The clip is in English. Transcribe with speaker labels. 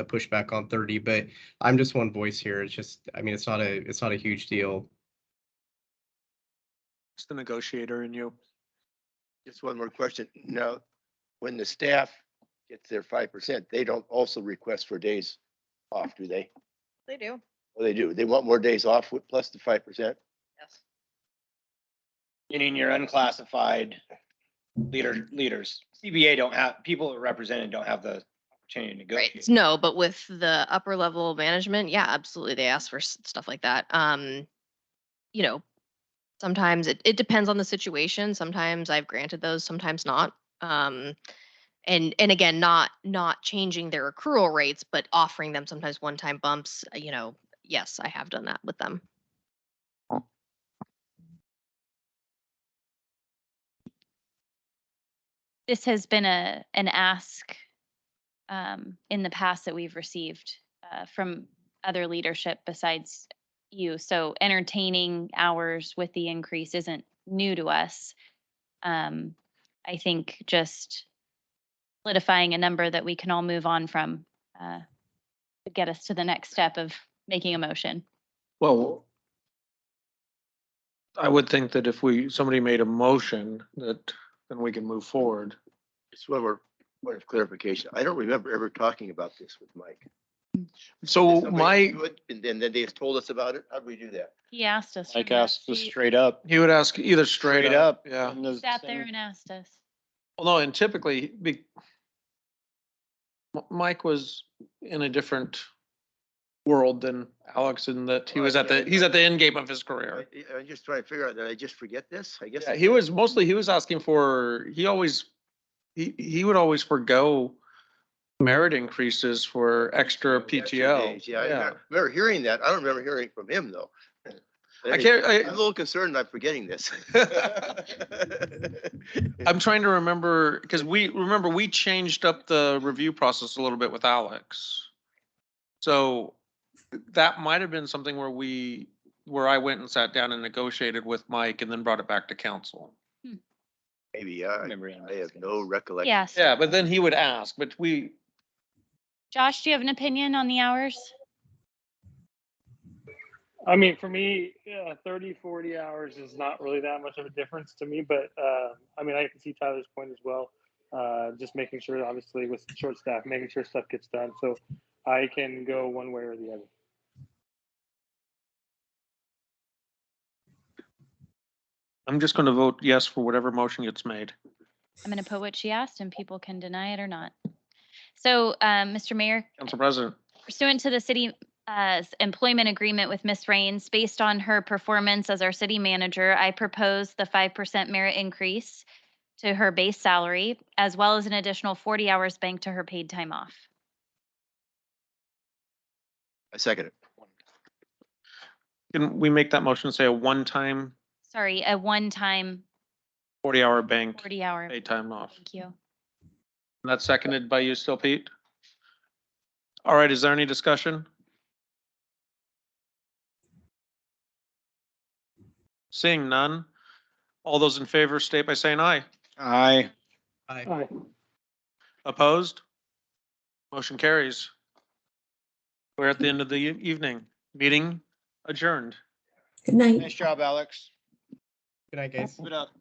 Speaker 1: a pushback on thirty, but I'm just one voice here. It's just, I mean, it's not a, it's not a huge deal.
Speaker 2: It's the negotiator in you.
Speaker 3: Just one more question. Now, when the staff gets their five percent, they don't also request for days off, do they?
Speaker 4: They do,
Speaker 3: Well, they do. They want more days off with plus the five percent.
Speaker 4: yes.
Speaker 5: Meaning your unclassified leader, leaders. CBA don't have, people represented don't have the opportunity to
Speaker 4: Right,
Speaker 5: negotiate.
Speaker 4: no, but with the upper level management, yeah, absolutely, they ask for s- stuff like that. Um, you know, sometimes it, it depends on the situation, sometimes I've granted those, sometimes not. Um, and, and again, not, not changing their accrual rates, but offering them sometimes one-time bumps, uh, you know, yes, I have done that with them.
Speaker 6: this has been a, an ask um, in the past that we've received uh, from other leadership besides you. So entertaining hours with the increase isn't new to us. Um, I think just solidifying a number that we can all move on from uh, would get us to the next step of making a motion.
Speaker 2: Well, I would think that if we, somebody made a motion that, then we can move forward.
Speaker 3: Just one more point of clarification. I don't remember ever talking about this with Mike.
Speaker 2: So
Speaker 3: Somebody
Speaker 2: my,
Speaker 3: do it, And then, then they told us about it. How'd we do that?
Speaker 6: He asked us.
Speaker 5: Like
Speaker 6: remember?
Speaker 5: asked us
Speaker 6: He
Speaker 5: straight up.
Speaker 2: he would ask either straight up, yeah.
Speaker 5: and the
Speaker 6: Sat
Speaker 5: same-
Speaker 6: there and asked us.
Speaker 2: Well, no, and typically, be, M- Mike was in a different world than Alex in that he was at the, he's at the end game of his
Speaker 3: I,
Speaker 2: career.
Speaker 3: I'm just trying to figure out, did I just forget this? I guess.
Speaker 2: Yeah, he was mostly, he was asking for, he always, he, he would always forego merit increases for extra
Speaker 3: Extra
Speaker 2: PTO.
Speaker 3: days. Yeah, I remember- remember hearing that. I don't remember hearing from him though.
Speaker 2: I can't,
Speaker 3: I'm a
Speaker 2: I,
Speaker 3: little concerned I'm forgetting this.
Speaker 2: I'm trying to remember, because we, remember, we changed up the review process a little bit with Alex. So that might have been something where we, where I went and sat down and negotiated with Mike and then brought it back to council.
Speaker 3: Maybe,
Speaker 5: I
Speaker 3: uh,
Speaker 5: remember him
Speaker 3: I have
Speaker 5: asking
Speaker 3: no
Speaker 5: us.
Speaker 3: recollection.
Speaker 6: He asked.
Speaker 2: Yeah, but then he would ask, but we,
Speaker 6: Josh, do you have an opinion on the hours?
Speaker 7: I mean, for me, yeah, 30, 40 hours is not really that much of a difference to me, but um I mean, I can see Tyler's point as well. Uh, just making sure, obviously, with short staff, making sure stuff gets done. So I can go one way or the other.
Speaker 2: I'm just going to vote yes for whatever motion gets made.
Speaker 6: I'm going to put what she asked and people can deny it or not. So, um, Mr. Mayor,
Speaker 2: Council President.
Speaker 6: pursuant to the city uh, s- employment agreement with Ms. Rains, based on her performance as our city manager, I propose the 5% merit increase to her base salary, as well as an additional 40 hours banked to her paid time off.
Speaker 3: I second it.
Speaker 2: Can we make that motion, say a one-time
Speaker 6: Sorry, a one-time
Speaker 2: forty-hour bank,
Speaker 6: 40-hour.
Speaker 2: paid time off?
Speaker 6: Thank you.
Speaker 2: And that's seconded by you still, Pete? All right, is there any discussion? Seeing none, all those in favor state by saying aye.
Speaker 5: Aye.
Speaker 1: I,
Speaker 7: All right.
Speaker 2: Opposed? Motion carries. We're at the end of the e- evening. Meeting adjourned.
Speaker 8: Good night.
Speaker 5: Nice job, Alex.
Speaker 1: good night, guys.
Speaker 5: Keep it up.